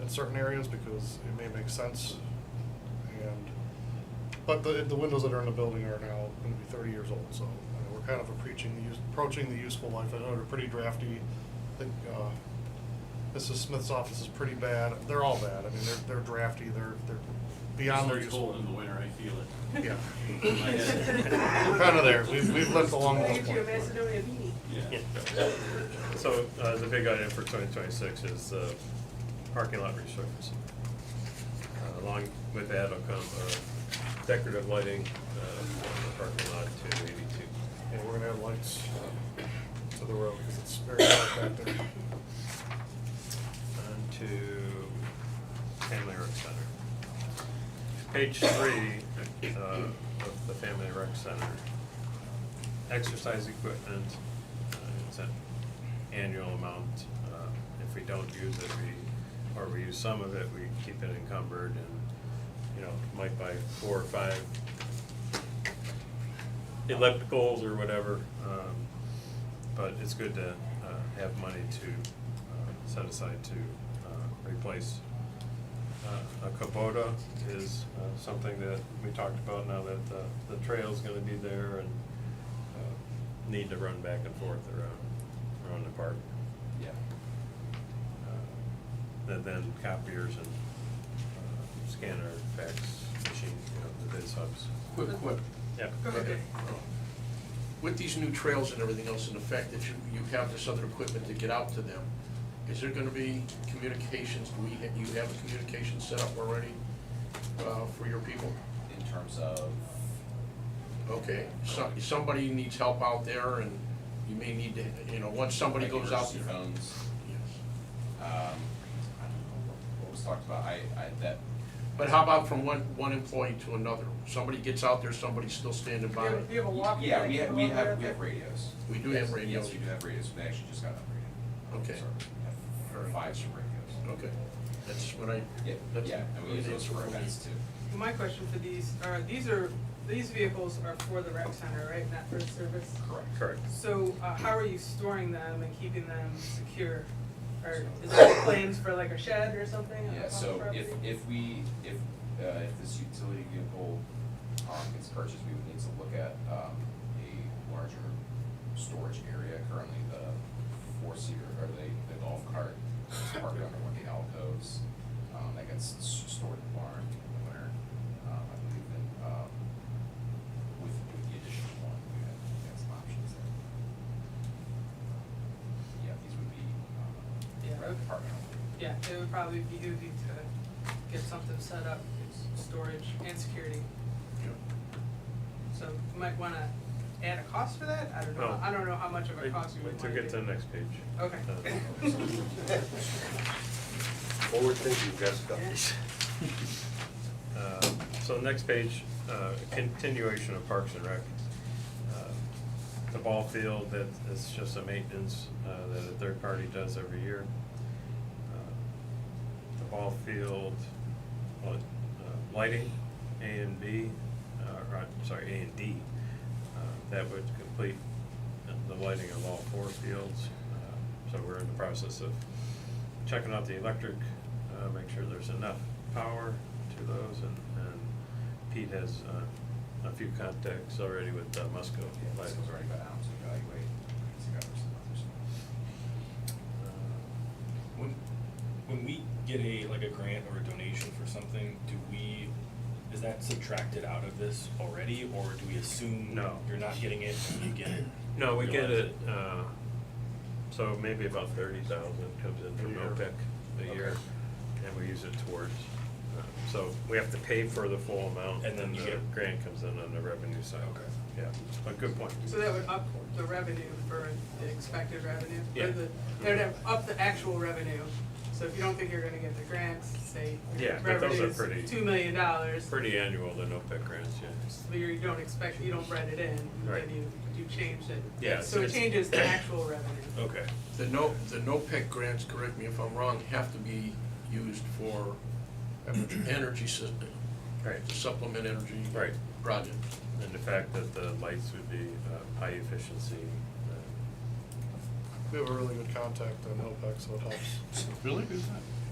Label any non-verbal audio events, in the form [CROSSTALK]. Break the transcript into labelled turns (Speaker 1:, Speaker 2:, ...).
Speaker 1: in certain areas because it may make sense. And, but the, the windows that are in the building are now gonna be thirty years old, so I mean, we're kind of approaching the use, approaching the useful life. I know they're pretty drafty. I think, uh, Mrs. Smith's office is pretty bad. They're all bad. I mean, they're, they're drafty. They're, they're beyond their
Speaker 2: It's
Speaker 1: useful.
Speaker 2: cold in the winter, I feel it.
Speaker 3: [LAUGHS]
Speaker 1: Yeah.
Speaker 2: In my head.
Speaker 1: We're kinda there. We've- we've lived along
Speaker 3: Look
Speaker 1: those
Speaker 3: at you, a
Speaker 1: points.
Speaker 3: Macedonia beanie.
Speaker 2: Yeah.
Speaker 4: So, uh, the big item for twenty twenty-six is, uh, parking lot resurfacing. Uh, Along with that will come uh, decorative lighting, uh, for the parking lot to eighty-two.
Speaker 1: And we're gonna add lights to the road because it's very dark back there.
Speaker 4: On to Family Rec Center. Page three, uh, of the Family Rec Center. Exercise equipment, uh, it's an annual amount. Uh, If we don't use it, we, or we use some of it, we keep it encumbered and, you know, might buy four or five ellipticals or whatever. um, But it's good to uh, have money to uh, set aside to uh, replace. Uh, A Kubota is uh, something that we talked about now that uh, the trail's gonna be there and uh, need to run back and forth around, around the park. Uh, And then copiers and uh, scanner, fax machine, you know, the bid subs.
Speaker 5: Quick, quick.
Speaker 4: Yeah.
Speaker 3: Go ahead, Dave.
Speaker 5: With these new trails and everything else, and the fact that you, you have this other equipment to get out to them, is there gonna be communications, do we, ha- you have a communication set up already, uh, for your people?
Speaker 6: in terms of,
Speaker 5: Okay, so, somebody needs help out there, and you may need to, you know, once somebody
Speaker 6: like,
Speaker 5: goes out
Speaker 6: emergency
Speaker 5: there.
Speaker 6: phones,
Speaker 5: Yes.
Speaker 6: um, I don't know what- what was talked about, I, I, that,
Speaker 5: But how about from one, one employee to another? Somebody gets out there, somebody's still standing
Speaker 3: Do you
Speaker 5: by.
Speaker 3: have- do you have a walkie?
Speaker 6: yeah, we
Speaker 3: that
Speaker 6: have,
Speaker 3: came
Speaker 6: we
Speaker 3: over there?
Speaker 6: have, we have radios.
Speaker 5: We do have
Speaker 6: Yes,
Speaker 5: radios.
Speaker 6: Yes, we do have radios, we actually just got upgraded.
Speaker 5: Okay.
Speaker 6: So, we have
Speaker 5: Very
Speaker 6: Five some radios.
Speaker 5: Okay, that's what I.
Speaker 6: Yeah,
Speaker 5: that's-
Speaker 6: yeah, and we use those for events too.
Speaker 3: My question for these are, these are, these vehicles are for the rec center, right, not for service?
Speaker 6: Correct.
Speaker 4: Correct.
Speaker 3: So, uh, how are you storing them and keeping them secure? Or is there claims for like a shed or something on the
Speaker 6: Yeah, so
Speaker 3: property?
Speaker 6: if, if we, if, uh, if this utility vehicle, um, gets purchased, we would need to look at, um, a larger storage area. Currently, the four-seater, or the, the golf cart is parked under one of the alcoves, um, that gets s- stored in the barn in the winter. Um, I believe that, um, with, with the additional one, we have, we have some options there. Yeah, these would be,
Speaker 3: Yeah,
Speaker 6: um,
Speaker 3: okay.
Speaker 6: rec department.
Speaker 3: Yeah, it would probably be easy to get something set up, storage and security. So you might wanna add a cost for that? I don't know,
Speaker 4: No.
Speaker 3: I don't know how much of a
Speaker 4: Wait
Speaker 3: cost you would
Speaker 4: wait till
Speaker 3: wanna
Speaker 4: we get to the
Speaker 3: do.
Speaker 4: next page.
Speaker 3: Okay.
Speaker 4: Uh,
Speaker 7: Forward thinking, Jessica.
Speaker 4: uh, So next page, uh, continuation of Parks and Rec. Uh, The ball field, that is just a maintenance uh, that a third party does every year. Uh, The ball field, what, uh, lighting, A and B, uh, or, I'm sorry, A and D. Uh, That would complete the lighting of all four fields. Uh, So we're in the process of checking out the electric, uh, make sure there's enough power to those, and, and Pete has, uh, a few contacts already with uh, Musco.
Speaker 6: Yeah, this
Speaker 4: Lighting.
Speaker 6: was already got out to evaluate, it's got some others.
Speaker 4: Uh,
Speaker 8: When, when we get a, like a grant or a donation for something, do we, is that subtracted out of this already, or do we assume?
Speaker 4: No.
Speaker 8: You're not getting it, and you get it?
Speaker 4: No, we get
Speaker 8: realize
Speaker 4: it, uh, so maybe about thirty thousand comes in from
Speaker 1: A year.
Speaker 4: OPEC a year, and we use it towards, uh, so we have to pay for the full amount, and
Speaker 8: And then
Speaker 4: then
Speaker 8: you
Speaker 4: the
Speaker 8: get-
Speaker 4: grant comes in on the revenue side.
Speaker 8: Okay.
Speaker 4: Yeah, but good point.
Speaker 3: So that would up the revenue for the expected revenue?
Speaker 4: Yeah.
Speaker 3: Or the- That would have up the actual revenue, so if you don't think you're gonna get the grants, say, your
Speaker 4: Yeah, but those are pretty-
Speaker 3: revenue's two million dollars,
Speaker 4: Pretty annual, the OPEC grants, yeah.
Speaker 3: but you don't expect, you don't write it in,
Speaker 4: Right.
Speaker 3: then you, you changed it.
Speaker 4: Yeah,
Speaker 3: So
Speaker 4: so
Speaker 3: it
Speaker 4: it's-
Speaker 3: changes the actual revenue.
Speaker 4: Okay.
Speaker 5: The no, the no-pick grants, correct me if I'm wrong, have to be used for energy system,
Speaker 4: Right.
Speaker 5: to supplement energy.
Speaker 4: Right.
Speaker 5: Projects.
Speaker 4: And the fact that the lights would be uh, high efficiency. uh,
Speaker 1: We have a really good contact on OPEC, so it helps.
Speaker 8: Really good time.